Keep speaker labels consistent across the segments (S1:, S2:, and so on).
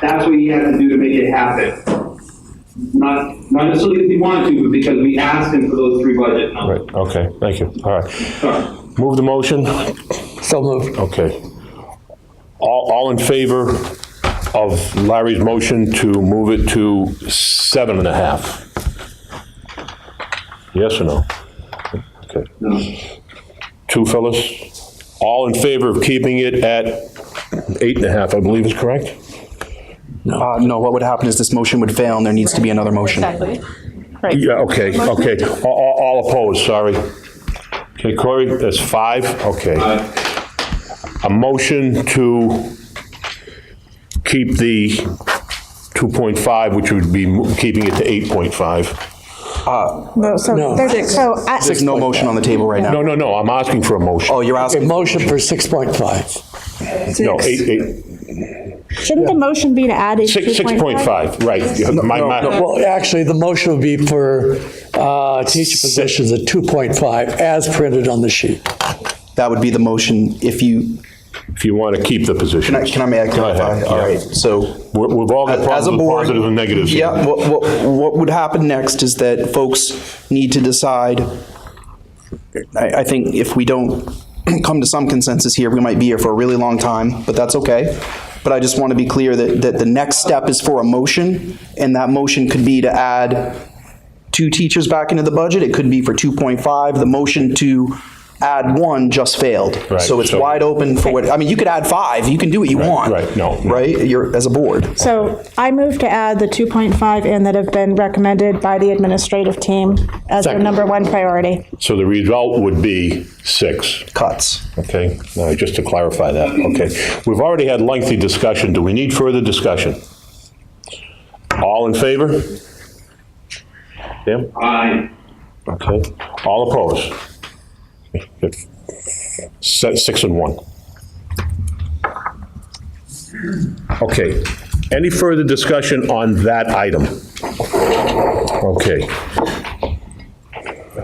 S1: That's what you have to do to make it happen. Not, not necessarily because we want to, but because we asked him for those three budget numbers.
S2: Right, okay, thank you. All right.
S1: Sorry.
S2: Move the motion?
S3: So moved.
S2: Okay. All, all in favor of Larry's motion to move it to seven and a half? Yes or no? Okay. Two fellas? All in favor of keeping it at eight and a half, I believe is correct?
S4: Uh, no, what would happen is this motion would fail and there needs to be another motion.
S5: Exactly. Right.
S2: Yeah, okay, okay. All, all- all opposed, sorry. Okay, Corey, that's five, okay. A motion to keep the 2.5, which would be mo- keeping it to 8.5.
S6: No, so
S3: No.
S6: there's, so I,
S4: There's no motion on the table right now.
S2: No, no, no, I'm asking for a motion.
S4: Oh, you're
S3: A
S4: asking,
S3: motion for 6.5.
S2: No, eight, eight,
S6: shouldn't the motion be to add in
S2: six, 6.5, right. My, my,
S3: Well, actually, the motion would be for uh, teacher positions at 2.5 as printed on the sheet.
S4: that would be the motion if you,
S2: if you want to keep the position.
S4: can I, can I, may I
S2: Go ahead,
S4: clarify? All
S2: yeah.
S4: right, so
S2: We're- We've all got
S4: As
S2: problems
S4: a
S2: with
S4: board.
S2: positive and negatives. here.
S4: Yeah, what, what, what would happen next is that folks need to decide. I, I think if we don't come to some consensus here, we might be here for a really long time, but that's okay. But I just want to be clear that, that the next step is for a motion, and that motion could be to add two teachers back into the budget. It could be for 2.5. The motion to add one just failed.
S2: Right,
S4: So it's
S2: so-
S4: wide open for what, I mean, you could add five. You can do what you want.
S2: right, no, no.
S4: Right? You're, as a board.
S6: So I move to add the 2.5 in that have been recommended by the administrative team as their
S3: Second.
S6: number one priority.
S2: So the result would be six.
S4: Cuts.
S2: Okay, all right, just to clarify that, okay. We've already had lengthy discussion, do we need further discussion? All in favor? Tim?
S1: Aye.
S2: Okay, all opposed? Se- Six and one. Okay, any further discussion on that item? Okay.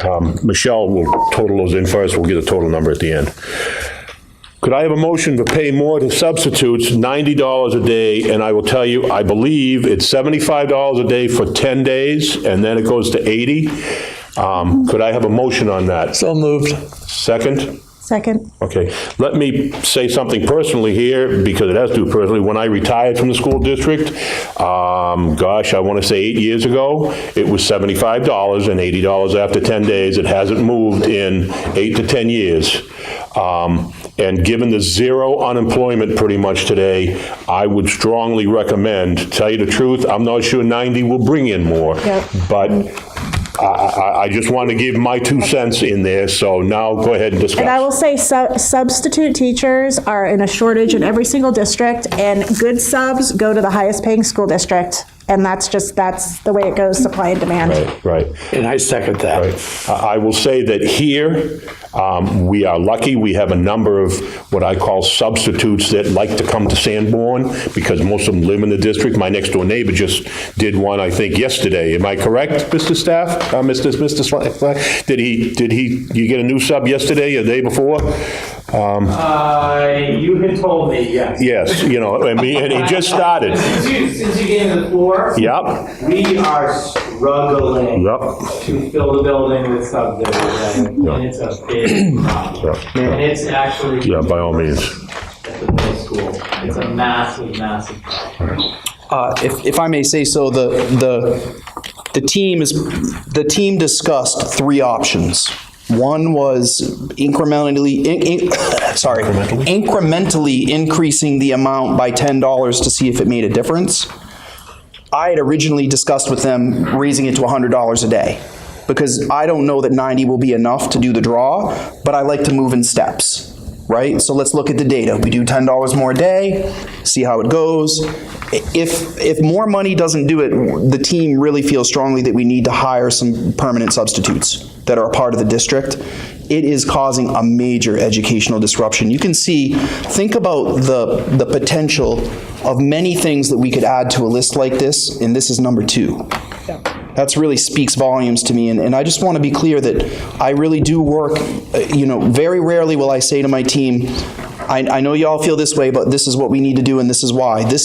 S2: Um, Michelle will total those in for us, we'll get a total number at the end. Could I have a motion to pay more to substitutes, $90 a day, and I will tell you, I believe it's $75 a day for 10 days, and then it goes to 80? Um, Could I have a motion on that?
S3: So moved.
S2: Second?
S6: Second.
S2: Okay, let me say something personally here, because it has to do personally. When I retired from the school district, um, gosh, I want to say eight years ago, it was seventy-five dollars and eighty dollars after ten days. It hasn't moved in eight to ten years. Um, and given the zero unemployment pretty much today, I would strongly recommend, tell you the truth, I'm not sure ninety will bring in more.
S6: Yep.
S2: But I, I, I just want to give my two cents in there, so now go ahead and discuss.
S6: And I will say su- substitute teachers are in a shortage in every single district, and good subs go to the highest paying school district. And that's just, that's the way it goes, supply and demand.
S2: Right, right,
S3: And I second that.
S2: right. I I will say that here, um, we are lucky, we have a number of what I call substitutes that like to come to Sanborn, because most of them live in the district. My next-door neighbor just did one, I think, yesterday. Am I correct, Mr. Staff? Uh, Mr. Mr. Sla- Sla- Did he, did he, you get a new sub yesterday or the day before? Um,
S7: Uh, you had told me, yes.
S2: Yes, you know, I mean, and he just started.
S7: Since you, since you gave me the floor.
S2: Yep,
S7: We are struggling.
S2: yep,
S7: To fill the building with subdivision, and it's a big problem.
S2: Yep.
S7: And it's actually.
S2: yeah, by all means.
S7: At the middle school, it's a massive, massive problem.
S4: Uh, if, if I may say so, the, the, the team is, the team discussed three options. One was incrementally, in- in- sorry, incrementally increasing the amount by $10 to see if it made a difference. I had originally discussed with them raising it to $100 a day because I don't know that 90 will be enough to do the draw, but I like to move in steps, right? So let's look at the data. We do $10 more a day, see how it goes. I- If, if more money doesn't do it, the team really feels strongly that we need to hire some permanent substitutes that are a part of the district. It is causing a major educational disruption. You can see, think about the, the potential of many things that we could add to a list like this, and this is number two. That's really speaks volumes to me, and, and I just want to be clear that I really do work, uh, you know, very rarely will I say to my team, I, I know y'all feel this way, but this is what we need to do and this is why. This